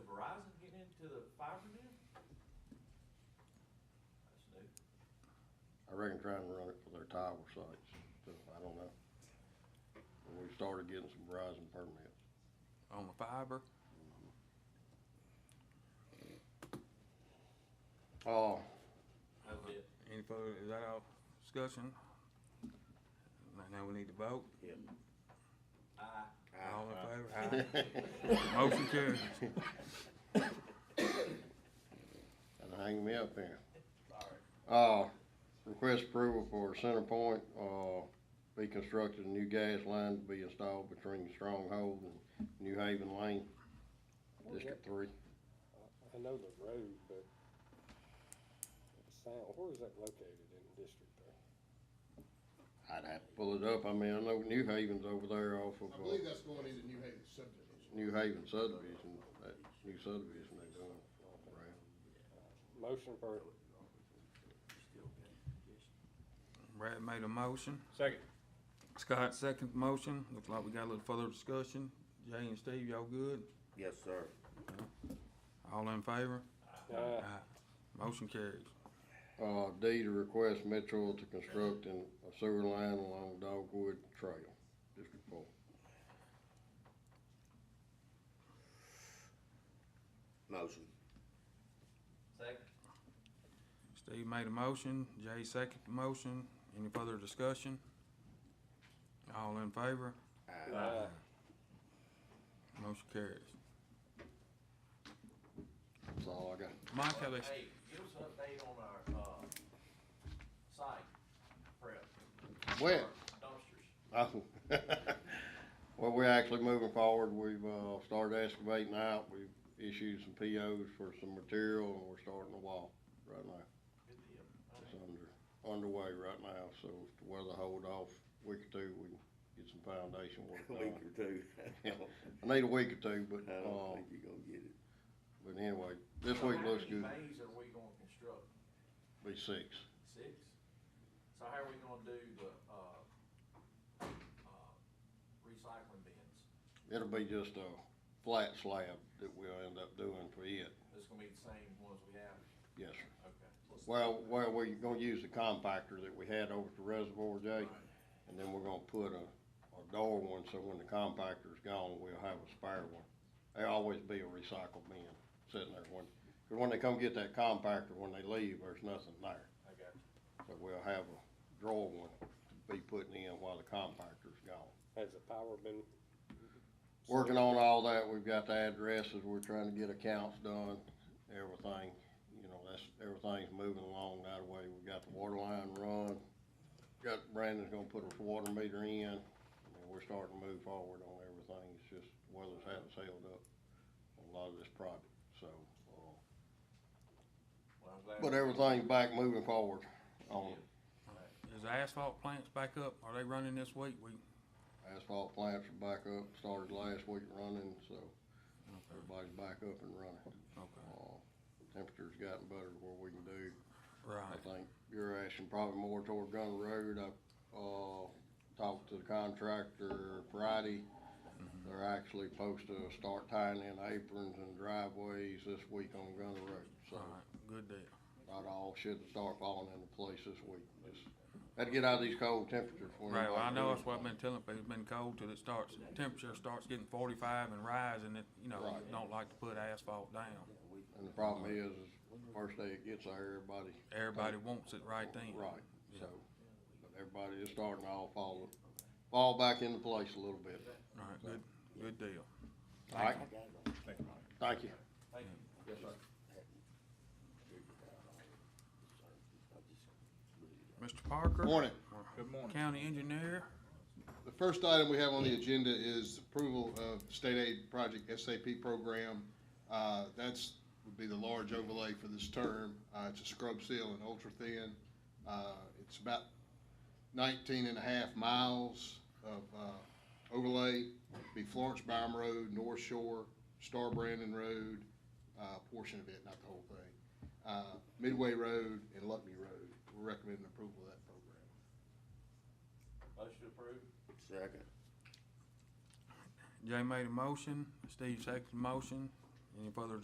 I reckon trying to run it for their tower sites, so I don't know. But We started getting some Verizon permits. on the fiber. Oh, That's it. Any further, is that all discussion? Now- Now we need to vote. Aye. All in favor? Aye. Motion carries. and hang me up here. Uh, request approval for Center Point, uh, be constructed a new gas line to be installed between Stronghold and New Haven Lane, District Three. I know the road, but the sound, where is that located in the district there? I'd have to pull it up, I mean, I know New Haven's over there off of, I believe uh, that's going into New Haven subdivision. New Haven subdivision, that new subdivision they doing, right? Motion for, Brad made a motion. Second. Scott second motion. Looks like we got a little further discussion. Jay and Steve, y'all good? Yes, sir. All in favor? uh, Aye. Motion carries. Uh, D to request Metro to construct an- a sewer line along Dogwood Trail, District Four. Motion. Second. Steve made a motion. Jay second motion. Any further discussion? All in favor? uh, Motion carries. That's all I got. Mike, have they, Hey, give us an update on our, uh, site prep. Well, Dumpsters. Oh. Well, we're actually moving forward. We've, uh, started excavating out. We've issued some POs for some material and we're starting to walk right now. Good deal. It's under, underway right now, so if the weather hold off a week or two, we can get some foundation work A week or done. two. I need a week or two, I but, don't um, think you're gonna get it. but anyway, this week looks good. How many bays are we gonna construct? Be six. Six? So how are we gonna do the, uh, uh, recycling bins? It'll be just a flat slab that we'll end up doing for it, It's gonna be the same ones we have? yes, sir. Okay. Well, well, we're gonna use the compactor that we had over at the reservoir, Jay, and then we're gonna put a, a door one, so when the compactor's gone, we'll have a spare one. There'll always be a recycle bin sitting there when, cause when they come get that compactor, when they leave, there's nothing there. I got you. So we'll have a drawer one to be putting in while the compactor's gone. has the power been? Working on all that, we've got the addresses, we're trying to get accounts done, everything, you know, that's, everything's moving along that way. We've got the water line run, got, Brandon's gonna put a water meter in, and we're starting to move forward on everything, it's just weather's had us held up on a lot of this project, so, uh, Well, I'm glad. but everything's back moving forward on it. is the asphalt plants back up? Are they running this week? We, Asphalt plants are back up, started last week running, so everybody's back up and running. okay, Uh, Temperature's gotten better where we can do. I right. think you're asking probably more toward Gunner Road. I, uh, talked to the contractor Friday. Mm-hmm. They're actually supposed to start tying in aprons and driveways this week on Gunner Road. So Alright, good deal. about all should start falling into place this week. Just had to get out of these cold temperatures. when Right, well, I know everybody's that's what I've been telling people, it's been cold till it starts, temperature starts getting forty-five and rising, it, you know, Right. don't like to put asphalt down. And the problem is, is first day it gets there, everybody Everybody wants it right then. Right, so, but everybody is starting to all fall, fall back into place a little bit. Alright, good, good deal. All right, thank you. Thank you. Yes, sir. Mr. Parker? Morning. Good morning. County engineer, The first item we have on the agenda is approval of state aid project SAP program. Uh, That's, would be the large overlay for this term. Uh, It's a scrub seal and ultra-thin. Uh, It's about 19 and a half miles of uh, overlay. Be Florence Byram Road, North Shore, Star Brandon Road, uh, portion of it, not the whole thing. Uh, Midway Road and Luckney Road. We're recommending approval of that program. Motion approved. Second. Jay made a motion, Steve seconded the motion, any further